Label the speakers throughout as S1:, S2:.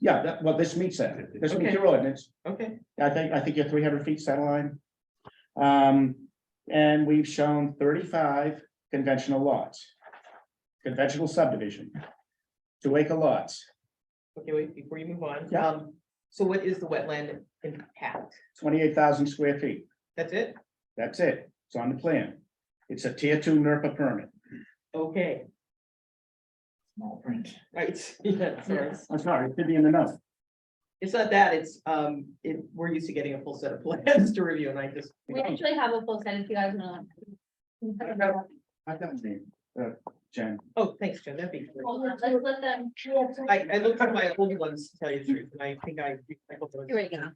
S1: Yeah, that, well, this meets that, this meets
S2: Okay.
S1: your ordinance,
S2: Okay,
S1: I think, I think you're three hundred feet centerline. Um, and we've shown thirty-five conventional lots. Conventional subdivision. Two acre lots,
S2: okay, wait, before you move on.
S1: Yeah.
S2: um, So what is the wetland impact?
S1: twenty-eight thousand square feet,
S2: That's it?
S1: that's it, it's on the plan. It's a tier two NERPA permit,
S2: Okay,
S3: Small print.
S2: right, yeah, sorry.
S1: I'm sorry, it should be in the note.
S2: It's not that, it's, um, it, we're used to getting a full set of plans to review and I just.
S4: We actually have a full set if you guys want.
S1: I don't need, uh, Jen,
S2: Oh, thanks, Jen, that'd be. great.
S4: Hold on, Let's let them.
S2: I, I looked at my old ones to tell you the truth, and I think I. I hope it
S4: Here
S2: was-
S4: we go.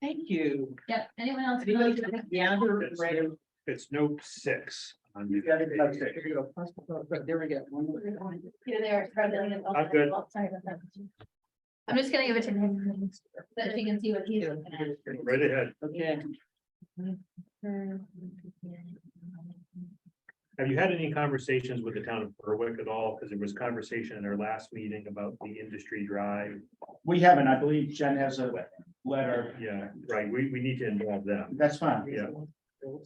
S2: Thank you.
S4: Yep, anyone else?
S2: Anybody have the other
S5: It's
S2: right of-
S5: note- it's note six. on the-
S1: Yeah, it's note six.
S2: There we go. There we go.
S4: Here they are. start doing it.
S5: I'm good.
S4: Sorry about that. I'm just gonna give it to him, so that she can see what he's looking at.
S5: Right ahead.
S2: Okay,
S5: Have you had any conversations with the town of Berwick at all? Because there was conversation in our last meeting about the industry drive.
S1: we haven't, I believe Jen has a letter,
S5: Yeah, right. We, we need to involve them,
S1: that's fine.
S5: Yeah.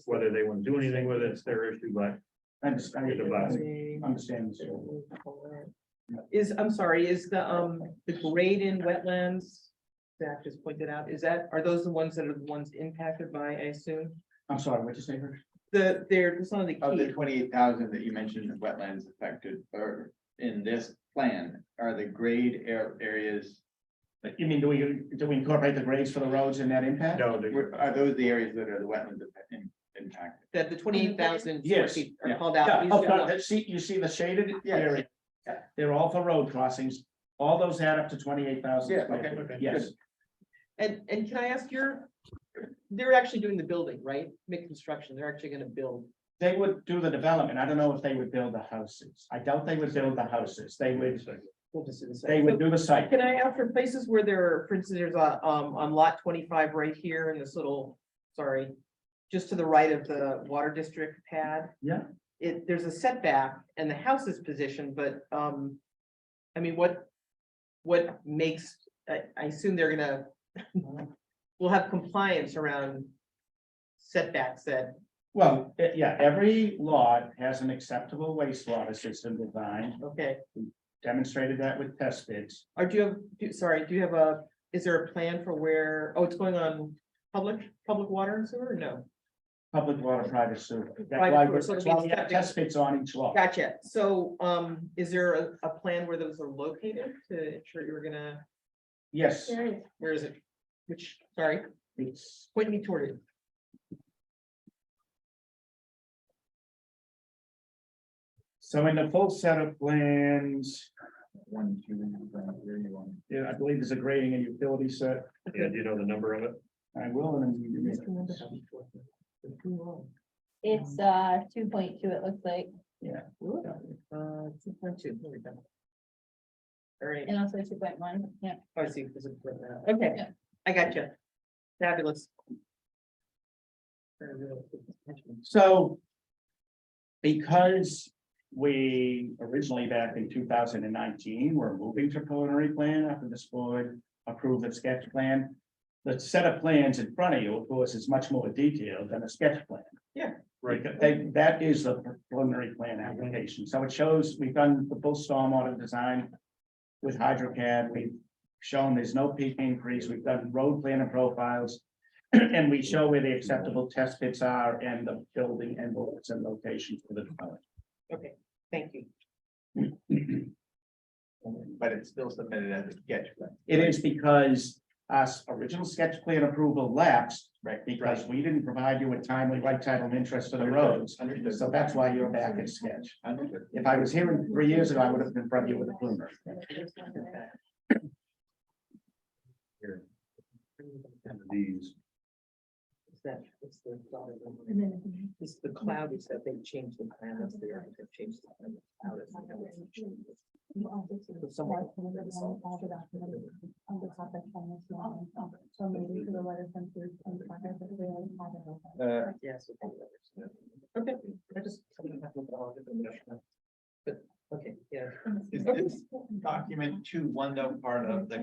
S5: whether they want to do anything with it, it's their issue, but
S1: I understand, I
S2: Okay.
S1: understand.
S2: Is, I'm sorry, is the, um, the grade in wetlands, Zach just pointed out, is that, are those the ones that are the ones impacted by, I assume?
S1: I'm sorry, what'd you say, Rich?
S2: The, they're some of the
S3: Of the
S2: key,
S3: twenty-eight thousand that you mentioned, the wetlands affected or in this plan, are the grade air areas?
S1: You mean, do we, do we incorporate the grades for the roads in that impact?
S5: no, they-
S3: were- Are those the areas that are the wetlands affected- impacted?
S2: that the twenty-eight thousand.
S1: Yes,
S2: Are
S3: yeah.
S2: called
S1: Yeah,
S2: out.
S1: oh, no, that- see, you see the shaded
S3: Yeah.
S1: area, they're all for road crossings, all those add up to twenty-eight thousand.
S3: Yeah, okay, okay,
S1: Yes,
S2: And, and can I ask your, they're actually doing the building, right? Mid-construction, they're actually gonna build.
S1: they would do the development, I don't know if they would build the houses, I doubt they would build the houses, they would,
S2: We'll just do the same.
S1: they would do the site.
S2: Can I ask for places where there, are, for instance, there's a, um, on lot twenty-five right here in this little, sorry, just to the right of the water district pad?
S1: Yeah.
S2: It, there's a setback and the house is positioned, but, um, I mean, what, what makes, I, I assume they're gonna, we'll have compliance around setbacks that,
S1: Well, eh, yeah, every lot has an acceptable wastewater system design,
S2: okay,
S1: demonstrated that with test bits.
S2: or do you have, do- sorry, do you have a, is there a plan for where, oh, it's going on public, public water and sewer? No.
S1: Public water, private sewer, that's
S2: Private
S1: why,
S2: sewer,
S1: we-
S2: so it
S1: that's why we
S2: means
S1: have
S2: that-
S1: test bits on each lot.
S2: Gotcha. So um, is there a, a plan where those are located to ensure you're gonna,
S1: Yes,
S2: where is it? Which, sorry,
S1: it's
S2: point me toward it.
S1: So in the full set of plans,
S3: One, two, where you want?
S1: yeah, I believe there's a grading and utility set.
S5: yeah, do you know the number of it?
S1: I will, and then you
S2: Just remember
S1: may-
S2: how we do it. Too long.
S4: It's uh two point two, it looks like,
S2: Ooh, uh, 2.2, there we go. All right, Oh,
S4: and also two point one, yeah.
S2: I see, there's a print now. okay,
S4: Yeah.
S2: I got you. Fabulous.
S1: So because we originally back in two thousand and nineteen, were moving to preliminary plan after this board approved the sketch plan. The set of plans in front of you, of course, is much more detailed than a sketch plan.
S5: Right,
S1: They- that is the preliminary plan application, so it shows, we've done the full stormwater design. With HydroCAD, we've shown there's no peak increase, we've done road plan and profiles. And we show where the acceptable test pits are and the building envelopes and locations for the dwelling.
S2: Okay, thank you.
S3: But it's still submitted as a sketch plan.
S1: It is because us original sketch plan approval lapsed.
S3: Right.
S1: Because we didn't provide you with timely right title and interest for the roads,
S3: Understood.
S1: so that's why you're back at sketch.
S3: Understood.
S1: If I was here three years ago, I would have been in front of you with a plumber.
S5: here. These,
S2: Is that- what's the dotted line?
S4: And then-
S2: It's the cloud is that they changed the plan, that's the art, they've changed the plan. the cloud is the color.
S4: You also see
S2: So someone-
S4: that one of the all- all the documents on the top of Thomas Law, um, So maybe to the letter sent through on the contract that we already have it open.
S3: Uh,
S2: Yes. with all the others. Okay, I just. But, okay, yeah.
S3: is this document two, one note part of the